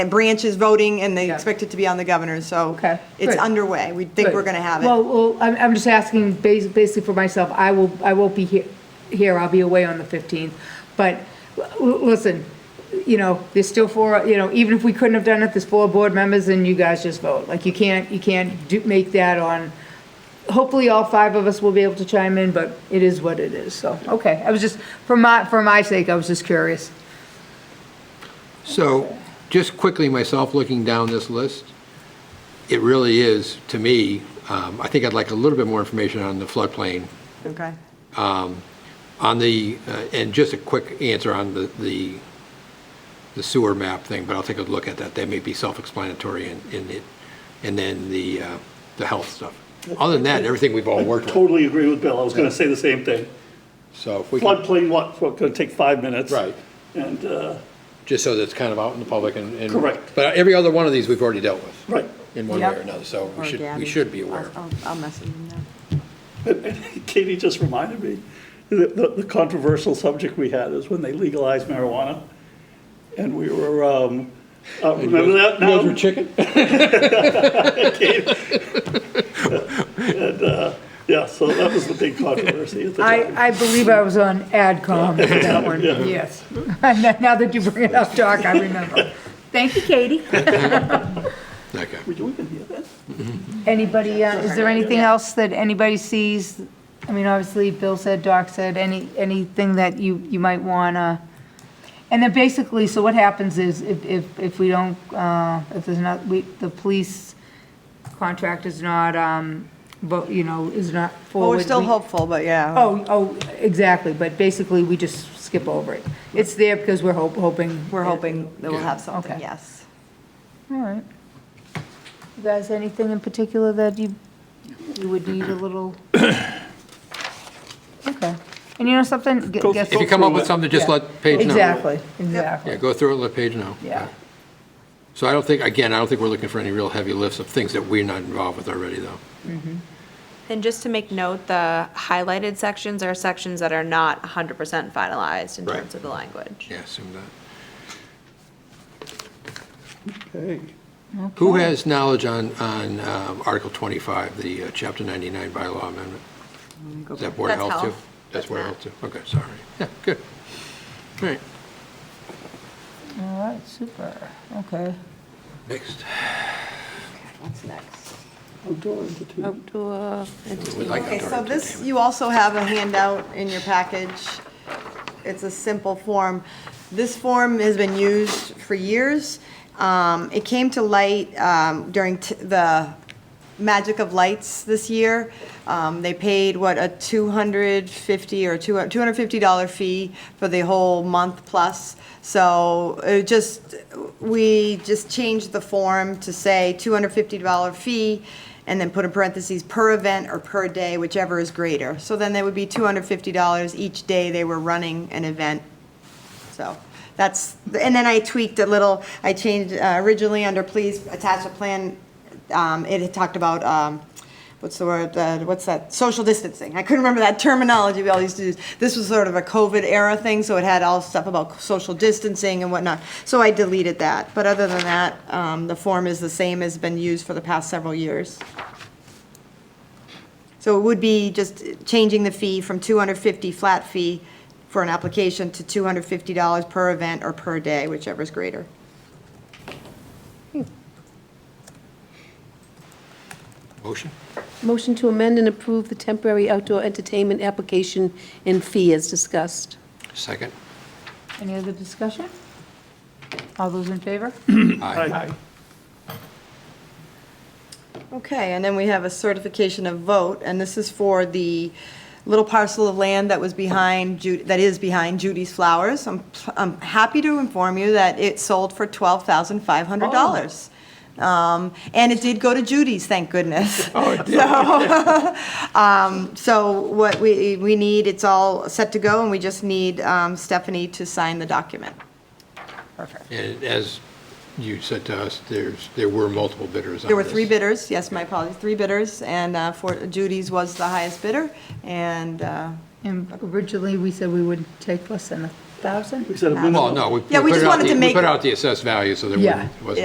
and Branch is voting, and they Yeah. expect it to be on the governor, so. Okay, It's good. underway. We think we're Good. going to have it. Well, well, I'm, I'm just asking bas- basically for myself, I will, I won't be he- here, I'll be away on the 15th. But, l- l- listen, you know, there's still four, you know, even if we couldn't have done it, there's four board members and you guys just vote. Like, you can't, you can't do, make that on, hopefully all five of us will be able to chime in, but it is what it is, so, okay. I was just, for my, for my sake, I was just curious. So, just quickly, myself looking down this list, it really is, to me, um, I think I'd like a little bit more information on the floodplain, Okay. on the, uh, and just a quick answer on the- the the sewer map thing, but I'll take a look at that. That may be self-explanatory in in it, and then the uh, the health stuff. Other than that, everything we've all worked with, Totally agree with Bill, I was gonna say the same thing. so if we can, Floodplain, what, what, gonna take five minutes? Right. And, uh, just so that it's kind of out in the public and. and- Correct. But every other one of these, we've already dealt with. right, In one way Yep. or another, so Or we should, Gabby. we should be aware. I'll- I'll I'll message him now. Katie just reminded me, the, the the controversial subject we had is when they legalized marijuana, and we were, um, uh, remember that now? chicken? Yeah, so that was the big controversy at the time. I, I believe I was on AdCom for that one, yes. Now that you bring it up, Doc, I remember. Thank you, Katie. Okay. We do- we can hear that. Anybody, uh, is there anything else that anybody sees? I mean, obviously, Bill said, Doc said, any, anything that you, you might want to, and then basically, so what happens is if, if, if we don't, uh, if there's not, we, the police contract is not, um, but, you know, is not Well, forward. we're still we- hopeful, but yeah. Oh, oh, exactly, but basically, we just skip over it. It's there because we're hope- hoping. We're hoping that we'll Yeah. have something, Okay. yes. All right. You guys, anything in particular that you, you would need a little? Okay. And you know something? Get- Go- get- If you come up with something, just let Paige know. Exactly, Yeah, exactly. go through it, let Paige know. Yeah. So I don't think, again, I don't think we're looking for any real heavy lifts of things that we're not involved with already, though. And just to make note, the highlighted sections are sections that are not 100% finalized in Right. terms of the language. Yeah, assume that. Okay. Who has knowledge on, on um, Article 25, the uh, Chapter 99 bylaw amendment? Is that Board of That's Health, too? Health. That's That's Board of Matt. Health, too? Okay, sorry. Yeah, good. All right, All right, super, okay. next. Outdoor entertainment. We'd like Okay, outdoor so entertainment. this, you also have a handout in your package. It's a simple form. This form has been used for years. Um, It came to light um, during t- the Magic of Lights this year. Um, They paid, what, a 250 or two- $250 fee for the whole month plus. So it just, we just changed the form to say $250 fee, and then put in parentheses, per event or per day, whichever is greater. So then they would be $250 each day they were running an event. So that's, and then I tweaked a little, I changed, uh, originally under please attach a plan, um, it had talked about, um, what's the word, uh, what's that, social distancing. I couldn't remember that terminology we all used to use. This was sort of a COVID era thing, so it had all stuff about social distancing and whatnot. So I deleted that, but other than that, um, the form is the same as been used for the past several years. So it would be just changing the fee from 250 flat fee for an application to $250 per event or per day, whichever is greater. Motion? Motion to amend and approve the temporary outdoor entertainment application and fee as discussed. Second? Any other discussion? All those in favor? Aye. Okay, and then we have a certification of vote, and this is for the little parcel of land that was behind, Ju- that is behind Judy's Flowers. I'm, I'm happy to inform you that it sold for $12,500. Um, And it did go to Judy's, thank goodness. Oh, it did. So what we, we need, it's all set to go, and we just need um, Stephanie to sign the document. And as you said to us, there's, there were multiple bidders on this. There were three bidders, yes, my apologies, three bidders, and uh, for Judy's was the highest bidder, and uh, And originally, we said we would take less than a thousand? We said a minimum. Well, no, we we Yeah, we put just it out wanted the- to we make- put out the assessed value, so there Yeah. wouldn't- wasn't